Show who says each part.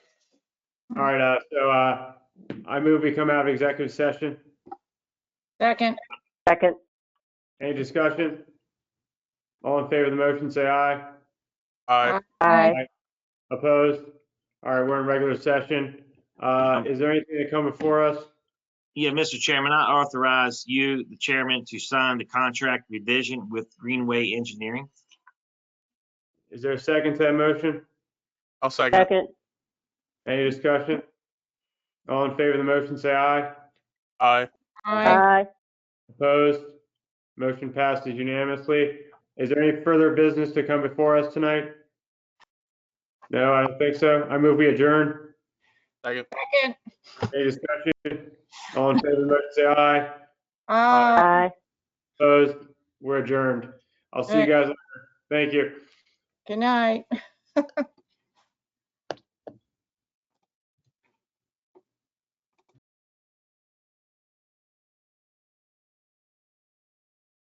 Speaker 1: All right, uh, so, uh, I move we come out of executive session.
Speaker 2: Second,
Speaker 3: Second,
Speaker 1: Any discussion? All in favor of the motion, say aye.
Speaker 4: Aye.
Speaker 3: aye.
Speaker 1: Opposed? All right, we're in regular session. Uh, is there anything to come before us?
Speaker 5: Yeah, Mr. Chairman, I authorize you, the chairman, to sign the contract revision with Greenway Engineering.
Speaker 1: Is there a second to that motion?
Speaker 4: I'll second.
Speaker 3: Second,
Speaker 1: Any discussion? All in favor of the motion, say aye.
Speaker 4: Aye.
Speaker 2: aye.
Speaker 3: aye.
Speaker 1: Opposed? Motion passes unanimously. Is there any further business to come before us tonight? No, I don't think so. I move we adjourn.
Speaker 4: Second.
Speaker 2: Second,
Speaker 1: Any discussion? All in favor of the motion, say aye.
Speaker 2: aye.
Speaker 3: Aye.
Speaker 1: Opposed? We're adjourned. I'll see you guys later. Thank you.
Speaker 2: Good night.